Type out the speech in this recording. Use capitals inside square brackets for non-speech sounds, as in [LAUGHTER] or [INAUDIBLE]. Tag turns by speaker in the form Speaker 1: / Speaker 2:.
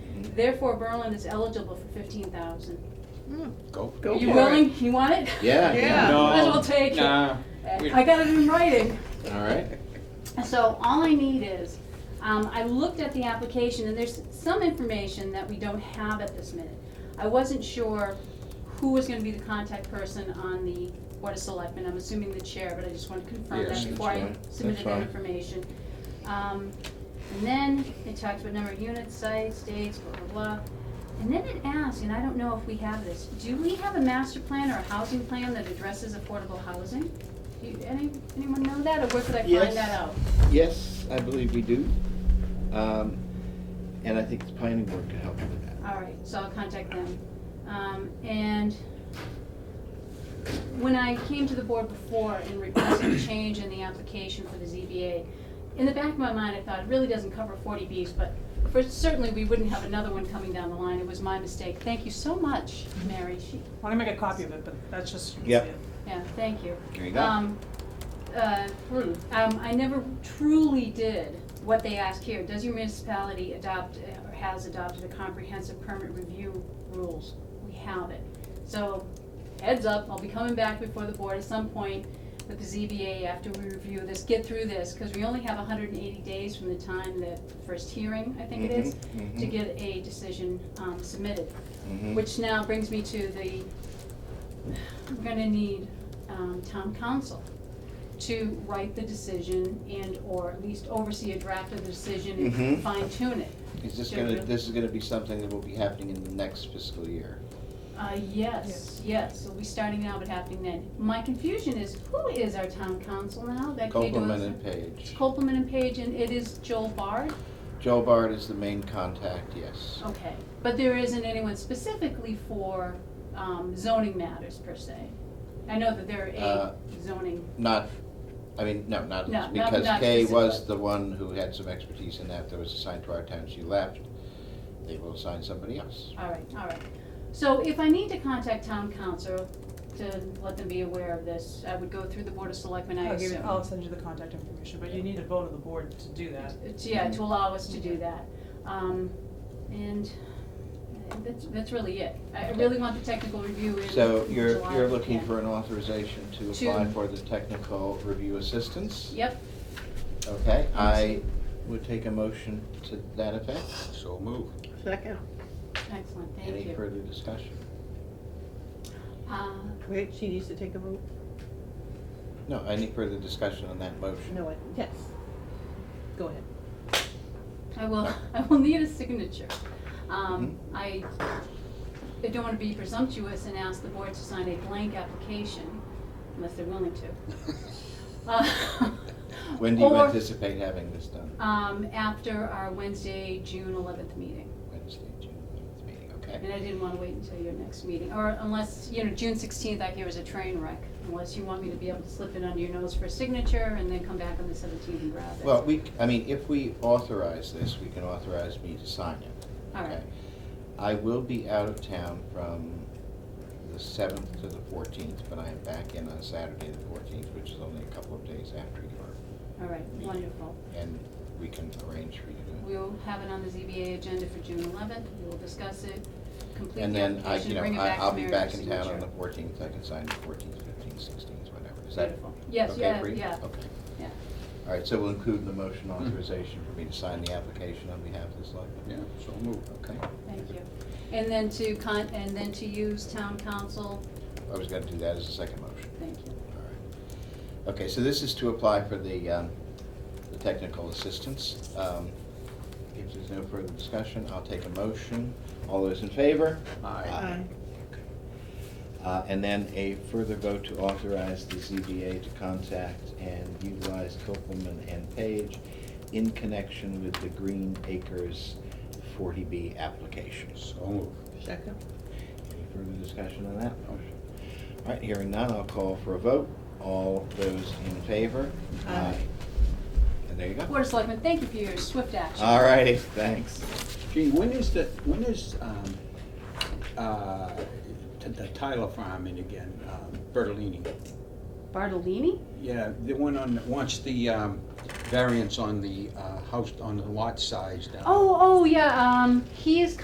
Speaker 1: Therefore, Berlin is eligible for fifteen thousand.
Speaker 2: Go.
Speaker 1: Are
Speaker 3: Go
Speaker 1: you
Speaker 3: for it.
Speaker 1: willing? You want it?
Speaker 2: Yeah.
Speaker 3: Yeah.
Speaker 2: No.
Speaker 1: Might as well take it.
Speaker 2: Nah. we-
Speaker 1: I got it in writing.
Speaker 2: All right.
Speaker 1: So all I need is, um, I looked at the application and there's some information that we don't have at this minute. I wasn't sure who was gonna be the contact person on the Board of Selectmen, I'm assuming the chair, but I just wanted to confirm
Speaker 2: Yes,
Speaker 1: that
Speaker 2: that's
Speaker 1: before I
Speaker 2: fine. That's
Speaker 1: submitted that
Speaker 2: fine.
Speaker 1: information. Um, and then it talks about number of units, sites, dates, blah, blah, blah. And then it asks, and I don't know if we have this, do we have a master plan or a housing plan that addresses affordable housing? Do you, any, anyone know that, or where could I
Speaker 3: Yes.
Speaker 1: find that out?
Speaker 3: Yes, I believe we do. Um, And I think the planning board could help with that.
Speaker 1: All right, so I'll contact them. Um, and when I came to the board before and requested a change in the application for the ZBA, in the back of my mind, I thought, it really doesn't cover forty Bs, but for, certainly, we wouldn't have another one coming down the line. It was my mistake. Thank you so much, Mary. She,
Speaker 4: I'm gonna make a copy of it, but that's just.
Speaker 3: Yep.
Speaker 1: yeah, thank you.
Speaker 3: There you go.
Speaker 1: Um, uh, hmm, um, I never truly did what they asked here. Does your municipality adopt uh, or has adopted a comprehensive permit review rules? We have it. So heads up, I'll be coming back before the board at some point with the ZBA after we review this, get through this, because we only have hundred and eighty days from the time the first hearing, I think it is,
Speaker 3: Mhm,
Speaker 1: to
Speaker 3: mhm.
Speaker 1: get a decision, um, submitted.
Speaker 3: Mhm.
Speaker 1: Which now brings me to the, we're gonna need um, town council to write the decision and/or at least oversee a draft of the decision
Speaker 3: Mhm.
Speaker 1: and fine tune it.
Speaker 3: Is this gonna, this is gonna be something that will be happening in the next fiscal year?
Speaker 1: Uh, yes, yes, so we starting now, but happening then. My confusion is, who is our town council now? That Kay
Speaker 3: Copeland
Speaker 1: Dorsey-
Speaker 3: and
Speaker 1: It's
Speaker 3: Page.
Speaker 1: Copeland and Page, and it is Joel Bard?
Speaker 3: Joe Bard is the main contact, yes.
Speaker 1: Okay, but there isn't anyone specifically for um, zoning matters per se? I know that there are
Speaker 3: Uh,
Speaker 1: eight zoning
Speaker 3: Not, I mean, no, not,
Speaker 1: No, not-
Speaker 3: because
Speaker 1: not
Speaker 3: Kay was
Speaker 1: specifically.
Speaker 3: the one who had some expertise in that, that was assigned to our town, she left. They will assign somebody else.
Speaker 1: All right, all right. So if I need to contact town council to let them be aware of this, I would go through the board of selectmen, I
Speaker 4: I'll give you,
Speaker 1: assume.
Speaker 4: I'll send you the contact information, but you need a vote of the board to do that.
Speaker 1: It's- Yeah, to allow us to do that. Um, and that's, that's really it. I I really want the technical review in
Speaker 3: So you're,
Speaker 1: July
Speaker 3: you're
Speaker 1: if we
Speaker 3: looking
Speaker 1: can.
Speaker 3: for an authorization to
Speaker 1: To-
Speaker 3: apply for the technical review assistance?
Speaker 1: Yep,
Speaker 3: Okay, I would take a motion to that effect.
Speaker 2: So move.
Speaker 5: Second,
Speaker 1: excellent, thank
Speaker 3: Any
Speaker 1: you.
Speaker 3: further discussion?
Speaker 1: Uh,
Speaker 5: wait, she needs to take a vote?
Speaker 3: No, any further discussion on that motion?
Speaker 5: No, I, yes. Go ahead.
Speaker 1: I will, [LAUGHS] I will need a signature. Um,
Speaker 3: Mm-hmm.
Speaker 1: I, I don't wanna be presumptuous and ask the board to sign a blank application unless they're willing to.
Speaker 3: [LAUGHS]
Speaker 1: Uh,
Speaker 3: When do you
Speaker 1: or,
Speaker 3: anticipate having this done?
Speaker 1: Um, after our Wednesday, June eleventh meeting,
Speaker 3: Wednesday, June eleventh meeting,
Speaker 1: and
Speaker 3: okay?
Speaker 1: I didn't wanna wait until your next meeting, or unless, you know, June sixteenth, I hear is a train wreck. Unless you want me to be able to slip it under your nose for a signature and then come back on the seventeenth and grab it.
Speaker 3: Well, we, c- I mean, if we authorize this, we can authorize me to sign it.
Speaker 1: All right.
Speaker 3: okay? I will be out of town from the seventh to the fourteenth, but I am back in on Saturday the fourteenth, which is only a couple of days after your,
Speaker 1: All right, wonderful.
Speaker 3: and we can arrange for you to do it.
Speaker 1: We'll have it on the ZBA agenda for June eleventh, we'll discuss it, complete
Speaker 3: And
Speaker 1: the
Speaker 3: then I,
Speaker 1: application,
Speaker 3: you know,
Speaker 1: bring it
Speaker 3: I-
Speaker 1: back to
Speaker 3: I'll be
Speaker 1: Mary for
Speaker 3: back in
Speaker 1: signature.
Speaker 3: town on the fourteenth, I can sign the fourteenth, fifteenth, sixteenth, whatever. Is that
Speaker 1: Beautiful. Yes,
Speaker 3: okay
Speaker 1: yeah,
Speaker 3: for you?
Speaker 1: yeah.
Speaker 3: Okay.
Speaker 1: Yeah.
Speaker 3: All right, so we'll include in the motion
Speaker 2: Hmm.
Speaker 3: authorization for me to sign the application on behalf of the selectmen?
Speaker 2: Yeah, so move.
Speaker 3: Okay,
Speaker 1: Thank you. And then to con, and then to use town council,
Speaker 3: I was gonna do that as a second motion.
Speaker 1: thank you.
Speaker 3: All right. Okay, so this is to apply for the, um, the technical assistance. Um, If there's no further discussion, I'll take a motion. All those in favor?
Speaker 2: Aye.
Speaker 5: Aye.
Speaker 3: Okay. Uh, And then a further vote to authorize the ZBA to contact and utilize Copeland and Page in connection with the Green Acres 40B applications.
Speaker 2: So move.
Speaker 5: Second,
Speaker 3: Any further discussion on that motion? All right, hearing none, I'll call for a vote. All those in favor?
Speaker 5: Aye.
Speaker 3: And there you go.
Speaker 1: Board of Selectmen, thank you for your swift action.
Speaker 3: All righty, thanks.
Speaker 2: Gee, when is the, when is, um, uh, t- the Tyler farm in again, um, Bertolini?
Speaker 1: Bartolini?
Speaker 2: Yeah, the one on, wants the, um, variance on the, uh, house, on the lot size down.
Speaker 1: Oh, oh, yeah, um, he is